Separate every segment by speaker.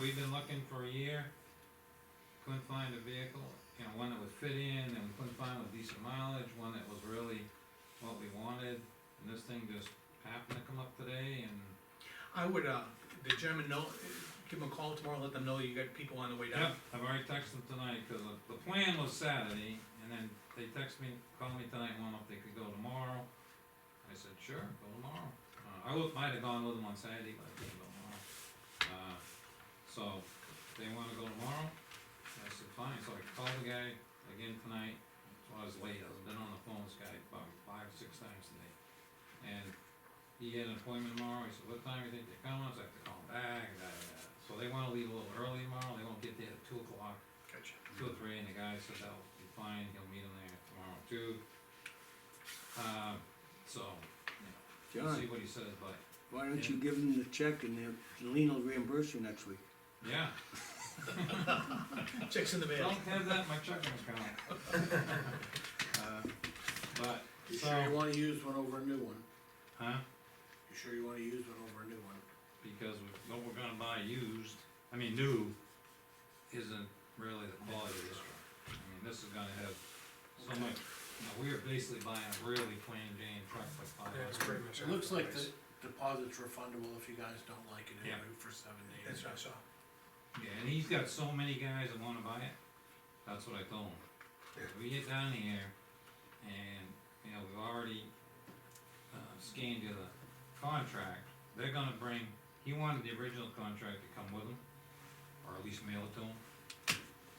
Speaker 1: we've been looking for a year, couldn't find a vehicle, you know, one that would fit in, and we couldn't find with decent mileage, one that was really what we wanted, and this thing just happened to come up today, and,
Speaker 2: I would, uh, the gentleman know, give them a call tomorrow, let them know you got people on the way
Speaker 1: yep,
Speaker 2: down.
Speaker 1: I've already texted them tonight, cause the, the plan was Saturday, and then they text me, called me tonight, and wanted if they could go tomorrow. I said, sure, go tomorrow, uh, I would, might have gone with them on Saturday, but I couldn't go tomorrow. Uh, so, they wanna go tomorrow, I said, fine, so I called the guy again tonight, so I was late, I've been on the phone with this guy about five, six times today. And he had an appointment tomorrow, he said, what time do you think they're coming, I said, I have to call him back, da, da, da. So they wanna leave a little early tomorrow, they won't get there at two o'clock,
Speaker 2: Gotcha.
Speaker 1: two or three, and the guy said that'll be fine, he'll meet him there tomorrow too. Uh, so, you know, we'll see
Speaker 3: John,
Speaker 1: what he says, but,
Speaker 3: why don't you give them the check and they'll- and Lean will reimburse you next week?
Speaker 1: yeah,
Speaker 2: Checks in the mail.
Speaker 1: don't have that in my checking account. Uh, But,
Speaker 4: You sure you
Speaker 1: So-
Speaker 4: wanna use one over a new one?
Speaker 1: huh?
Speaker 4: You sure you wanna use one over a new one?
Speaker 1: because we- what we're gonna buy used, I mean, new, isn't really the quality of this truck. I mean, this is gonna have so much, you know, we are basically buying a really plain Jane truck for five
Speaker 2: That's
Speaker 1: hundred.
Speaker 2: pretty much.
Speaker 4: It looks like the deposit's refundable if you guys don't like it
Speaker 1: Yeah.
Speaker 4: anyway for seven days.
Speaker 2: That's what I saw.
Speaker 1: Yeah, and he's got so many guys that wanna buy it, that's what I told him. We get down here, and, you know, we've already, uh, scanned you the contract, they're gonna bring, he wanted the original contract to come with him, or at least mail it to him.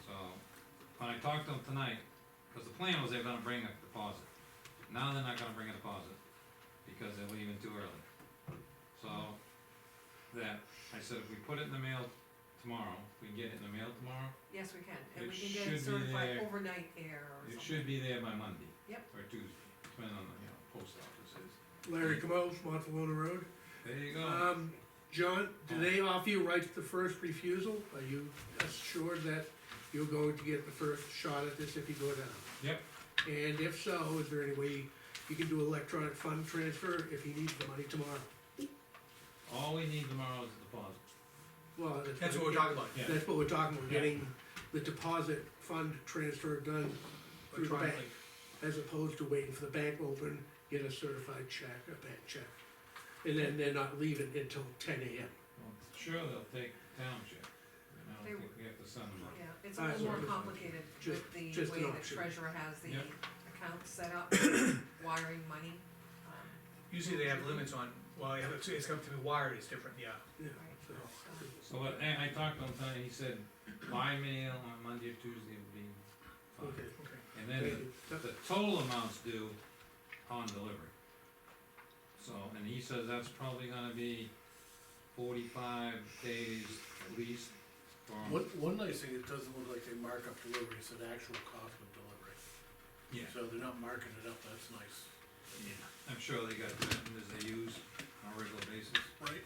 Speaker 1: So, when I talked to him tonight, cause the plan was they're gonna bring a deposit, now they're not gonna bring a deposit, because they're leaving too early. So, that, I said, if we put it in the mail tomorrow, we can get it in the mail tomorrow,
Speaker 5: Yes, we can,
Speaker 1: It
Speaker 5: and we can get
Speaker 1: should
Speaker 5: it
Speaker 1: be
Speaker 5: certified
Speaker 1: there.
Speaker 5: overnight there or
Speaker 1: it
Speaker 5: something.
Speaker 1: should be there by Monday.
Speaker 5: Yep.
Speaker 1: Or Tuesday, depending on the, you know, post office is.
Speaker 6: Larry Camus, Montalona Road.
Speaker 1: There you go.
Speaker 5: Uh,
Speaker 6: Um, John, do they offer you rights to first refusal? Are you assured that you're going to get the first shot at this if you go down?
Speaker 1: Yep.
Speaker 6: And if so, is there any way you can do electronic fund transfer if he needs the money tomorrow?
Speaker 1: All we need tomorrow is a deposit.
Speaker 6: Well,
Speaker 2: That's what we're talking about.
Speaker 1: Yeah.
Speaker 6: That's what we're talking, about.
Speaker 1: Yeah.
Speaker 6: getting the deposit fund transfer done through the bank,
Speaker 2: Electronically.
Speaker 6: as opposed to waiting for the bank to open, get a certified check, a bank check. And then they're not leaving until ten AM.
Speaker 1: Well, Sure, they'll take township, and I
Speaker 5: They
Speaker 1: don't think we have to send them.
Speaker 5: Yeah, it's a
Speaker 6: Alright,
Speaker 5: little
Speaker 6: so
Speaker 5: more
Speaker 6: just-
Speaker 5: complicated
Speaker 6: just-
Speaker 5: with the
Speaker 6: just
Speaker 5: way
Speaker 6: an
Speaker 5: the
Speaker 6: option.
Speaker 5: treasurer has the
Speaker 1: Yep.
Speaker 5: account set up, wiring money. um,
Speaker 2: Usually they have limits on, well, yeah, it's, it's got to be wired, it's different, yeah.
Speaker 6: Yeah,
Speaker 5: Right.
Speaker 6: so.
Speaker 5: so-
Speaker 1: So, what- and I talked to him tonight, he said by mail on Monday or Tuesday would be
Speaker 6: Okay.
Speaker 1: fine.
Speaker 2: Okay.
Speaker 1: And then the, the total amount's due on delivery. So, and he says that's probably gonna be forty-five days at least from,
Speaker 4: One, one nice thing, it doesn't look like they mark up delivery, it's an actual cost of delivery.
Speaker 1: yeah,
Speaker 4: So they're not marking it up, that's nice.
Speaker 1: yeah. I'm sure they got vendors they use on a regular basis.
Speaker 4: Right.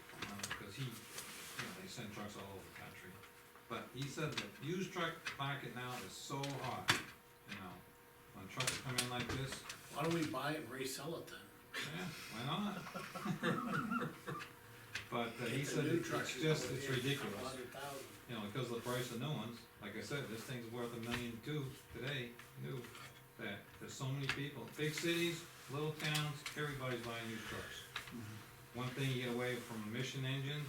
Speaker 1: because he, you know, they send trucks all over the country. But he said the used truck market now is so hot, you know, when trucks come in like this,
Speaker 4: Why don't we buy it and resell it then?
Speaker 1: yeah, why not? But uh, he
Speaker 4: The
Speaker 1: said
Speaker 4: new
Speaker 1: it-
Speaker 4: truck
Speaker 1: it's
Speaker 4: is
Speaker 1: just,
Speaker 4: going
Speaker 1: it's
Speaker 4: in for
Speaker 1: ridiculous,
Speaker 4: 100,000.
Speaker 1: you know, because of the price of new ones, like I said, this thing's worth a million two today, new. That, there's so many people, big cities, little towns, everybody's buying new trucks. One thing you get away from emission engines,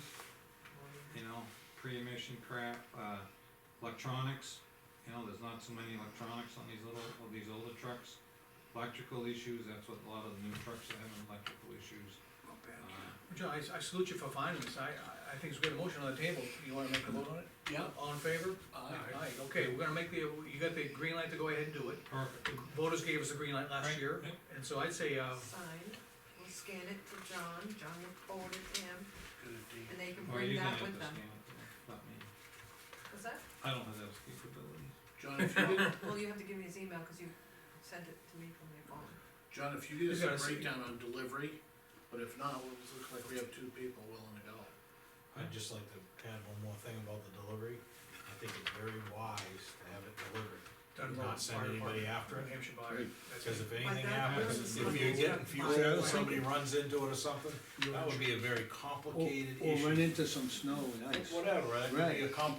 Speaker 1: you know, pre-emission crap, uh, electronics, you know, there's not so many electronics on these little, on these older trucks. Electrical issues, that's what a lot of the new trucks are having, electrical issues. Uh,
Speaker 2: John, I, I salute you for finding this, I, I- I think it's a good motion on the table, you wanna make a vote on it?
Speaker 4: Yeah,
Speaker 2: All in favor?
Speaker 4: Aye.
Speaker 2: okay, we're gonna make the, you got the green light to go ahead and do it,
Speaker 1: Perfect.
Speaker 2: the voters gave us the green light last
Speaker 1: Right,
Speaker 2: year,
Speaker 1: yep.
Speaker 2: and so I'd say, uh,
Speaker 5: Sign, we'll scan it to John, John will forward it to him,
Speaker 4: good idea.
Speaker 5: and they can
Speaker 1: Or Oh, you can
Speaker 5: bring that
Speaker 1: have
Speaker 5: with
Speaker 1: to
Speaker 5: them.
Speaker 1: scan it, uh, Not me,
Speaker 5: Is that?
Speaker 1: I don't have those capabilities.
Speaker 4: John, if you get,
Speaker 5: Well, you have to give me his email, cause you sent it to me from your phone.
Speaker 4: John, if you get
Speaker 2: You gotta
Speaker 4: us a
Speaker 2: see.
Speaker 4: breakdown on delivery, but if not, it looks like we have two people willing to go.
Speaker 7: I'd just like to add one more thing about the delivery. I think it's very wise to have it delivered.
Speaker 2: I Gunpowder.
Speaker 1: Not send
Speaker 2: Fire
Speaker 1: anybody
Speaker 2: Department,
Speaker 1: after it?
Speaker 2: New Hampshire Fire.
Speaker 3: Right.
Speaker 2: That's
Speaker 1: Cause
Speaker 2: it.
Speaker 1: if anything
Speaker 5: that
Speaker 1: happens,
Speaker 5: was
Speaker 1: if
Speaker 5: my
Speaker 1: you're getting
Speaker 5: thought.
Speaker 1: fuel,
Speaker 3: Yeah, I
Speaker 1: or
Speaker 3: was
Speaker 1: somebody runs into it or something,
Speaker 8: You're
Speaker 1: that would be a very
Speaker 3: Or,
Speaker 1: complicated
Speaker 3: or run
Speaker 1: issue.
Speaker 3: into some snow and ice.
Speaker 1: Whatever, that could be
Speaker 3: Right.
Speaker 1: a complex